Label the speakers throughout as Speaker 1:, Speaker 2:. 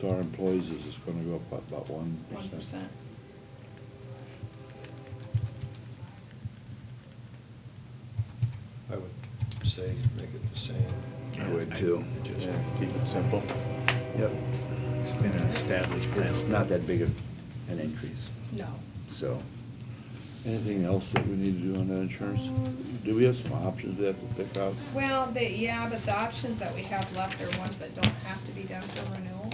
Speaker 1: So our employees is just gonna go up about one
Speaker 2: one percent.
Speaker 3: I would say make it the same.
Speaker 4: I would too.
Speaker 3: Just-
Speaker 1: Yeah, keep it simple.
Speaker 4: Yep.
Speaker 5: Been an established plan.
Speaker 4: It's not that big of an increase,
Speaker 2: No.
Speaker 4: so.
Speaker 1: Anything else that we need to do on that insurance?
Speaker 2: Um,
Speaker 1: Do we have some options we have to pick out?
Speaker 2: Well, they, yeah, but the options that we have left are ones that don't have to be done for renewal.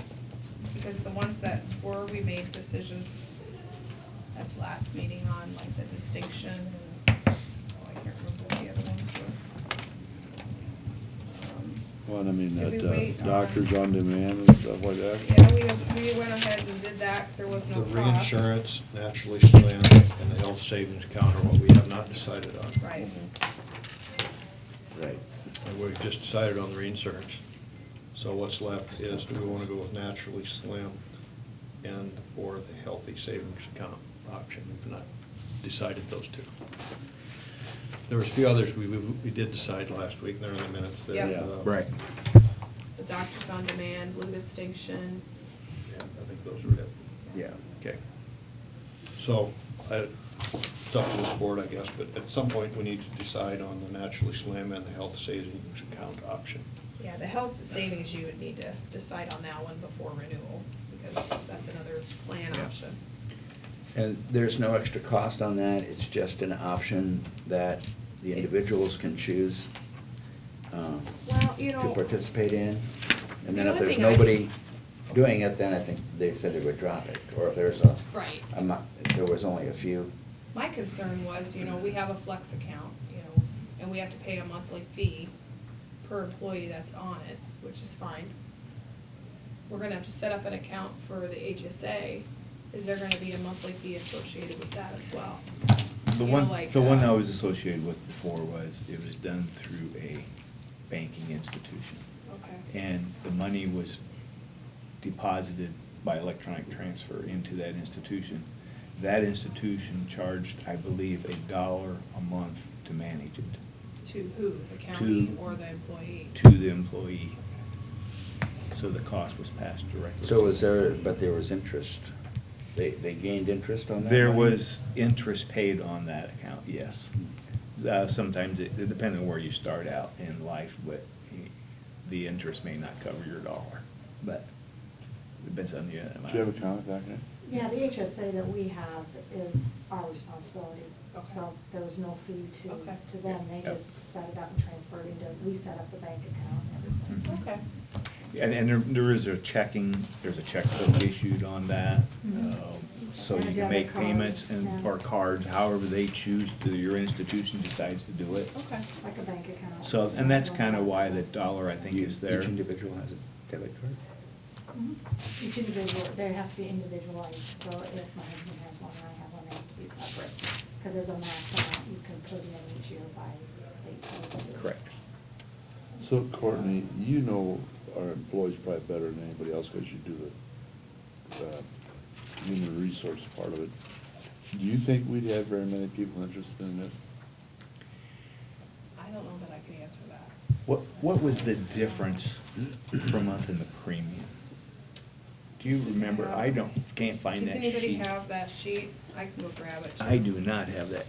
Speaker 2: Because the ones that were, we made decisions at the last meeting on, like the distinction and, oh, I can't remember what the other ones were. Um,
Speaker 1: One, I mean,
Speaker 2: Did
Speaker 1: that
Speaker 2: we
Speaker 1: uh,
Speaker 2: wait on-
Speaker 1: doctors on demand and stuff like that?
Speaker 2: Yeah, we, we went ahead and did that, 'cause there was no
Speaker 3: The
Speaker 2: cost.
Speaker 3: reinsurance naturally slant and the health savings account are what we have not decided on.
Speaker 2: Right.
Speaker 4: Right.
Speaker 3: And we've just decided on the reinsurance. So what's left is, do we want to go with naturally slim and or the healthy savings account option? We've not decided those two. There was a few others we, we we did decide last week, and they're in the minutes there.
Speaker 2: Yep.
Speaker 3: uh,
Speaker 1: Yeah.
Speaker 4: Right.
Speaker 2: The doctors on demand, blue distinction.
Speaker 3: Yeah, I think those were it.
Speaker 4: Yeah.
Speaker 3: Okay. So, I, it's up to the board, I guess, but at some point, we need to decide on the naturally slim and the health savings account option.
Speaker 2: Yeah, the health savings, you would need to decide on that one before renewal, because that's another plan
Speaker 3: Yeah.
Speaker 2: option.
Speaker 4: And there's no extra cost on that, it's just an option that the individuals can choose um,
Speaker 2: Well, you
Speaker 4: to
Speaker 2: know-
Speaker 4: participate in. And
Speaker 2: The
Speaker 4: then if
Speaker 2: only
Speaker 4: there's
Speaker 2: thing I-
Speaker 4: nobody doing it, then I think they said they would drop it, or if there's a.
Speaker 2: Right.
Speaker 4: a mo- if there was only a few.
Speaker 2: My concern was, you know, we have a flex account, you know, and we have to pay a monthly fee per employee that's on it, which is fine. We're gonna have to set up an account for the HSA. Is there gonna be a monthly fee associated with that as well?
Speaker 5: The
Speaker 2: You know,
Speaker 5: one,
Speaker 2: like,
Speaker 5: the one
Speaker 2: uh,
Speaker 5: I was associated with before was, it was done through a banking institution.
Speaker 2: Okay.
Speaker 5: And the money was deposited by electronic transfer into that institution. That institution charged, I believe, a dollar a month to manage it,
Speaker 2: To who? The county
Speaker 5: To-
Speaker 2: or the employee?
Speaker 5: to the employee. So the cost was passed directly.
Speaker 4: So was there, but there was interest, they, they gained interest on that?
Speaker 5: There
Speaker 4: money?
Speaker 5: was interest paid on that account, yes. Uh, Sometimes, it it depends on where you start out in life, but the interest may not cover your dollar, but it depends on the amount.
Speaker 1: Do you have a eh? comment back there?
Speaker 6: Yeah, the HSA that we have is our responsibility, so
Speaker 2: Okay.
Speaker 6: there was no fee to,
Speaker 2: Okay.
Speaker 6: to them, they
Speaker 5: Yep.
Speaker 6: just set it up and transferred into, we set up the bank account and everything.
Speaker 2: Okay.
Speaker 5: And, and there- there is a checking, there's a checkbook issued on that,
Speaker 6: Mhm.
Speaker 5: um, so
Speaker 6: And
Speaker 5: you
Speaker 6: if
Speaker 5: can
Speaker 6: you have a
Speaker 5: make
Speaker 6: card,
Speaker 5: payments and,
Speaker 6: yeah.
Speaker 5: or cards, however they choose, to your institution decides to do it.
Speaker 2: Okay.
Speaker 6: It's like a bank account.
Speaker 5: So, and that's kind of why the dollar, I think,
Speaker 4: You-
Speaker 5: is there.
Speaker 4: Each individual has a debit card?
Speaker 6: Mhm. Each individual, they have to be individualized, so if my husband has one and I have one, they have to be separate, because there's a max amount you can put in each year by state. code.
Speaker 5: Correct.
Speaker 1: So Courtney, you know our employees probably better than anybody else because you do the uh, human resource part of it. Do you think we'd have very many people interested in it?
Speaker 2: I don't know that I could answer that.
Speaker 5: What, what was the difference per month in the premium? Do you remember? I don't, can't find that
Speaker 2: Does anybody
Speaker 5: sheet.
Speaker 2: have that sheet? I can go grab it.
Speaker 5: I do not have that,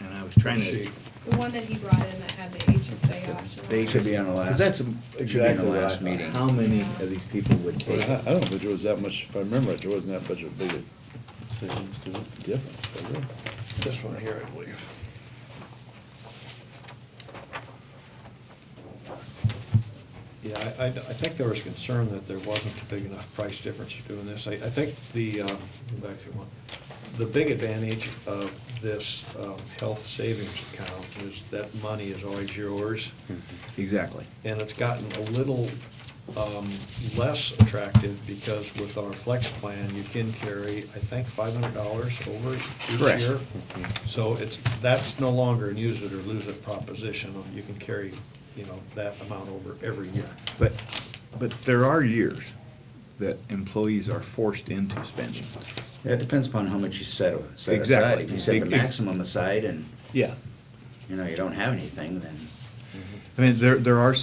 Speaker 5: and I was trying to.
Speaker 3: Sheet.
Speaker 2: The one that he brought in that had the HSA option. on
Speaker 4: They
Speaker 2: it.
Speaker 4: should be on the last.
Speaker 5: Because that's
Speaker 4: it should be on the
Speaker 5: exactly what I
Speaker 4: last
Speaker 5: thought.
Speaker 4: meeting.
Speaker 5: How many of these people would
Speaker 1: Well,
Speaker 5: take?
Speaker 1: I I don't think there was that much, if I remember right, there wasn't that much of a big a savings to it, difference. was there?
Speaker 3: This one here, I believe. Yeah, I, I- I think there was concern that there wasn't a big enough price difference for doing this. I, I think the, um, go back to one, the big advantage of this um, health savings account is that money is always yours.
Speaker 5: Exactly.
Speaker 3: And it's gotten a little um, less attractive because with our flex plan, you can carry, I think, $500 over each
Speaker 5: Correct.
Speaker 3: year. So it's, that's no longer an use it or lose it proposition. You can carry, you know, that amount over every year.
Speaker 5: But, but there are years that employees are forced into spending.
Speaker 4: Yeah, it depends upon how much you set, set aside.
Speaker 5: Exactly.
Speaker 4: If you set the
Speaker 5: Big- big-
Speaker 4: maximum aside and,
Speaker 5: Yeah.
Speaker 4: you know, you don't have anything, then.
Speaker 5: I mean, there, there are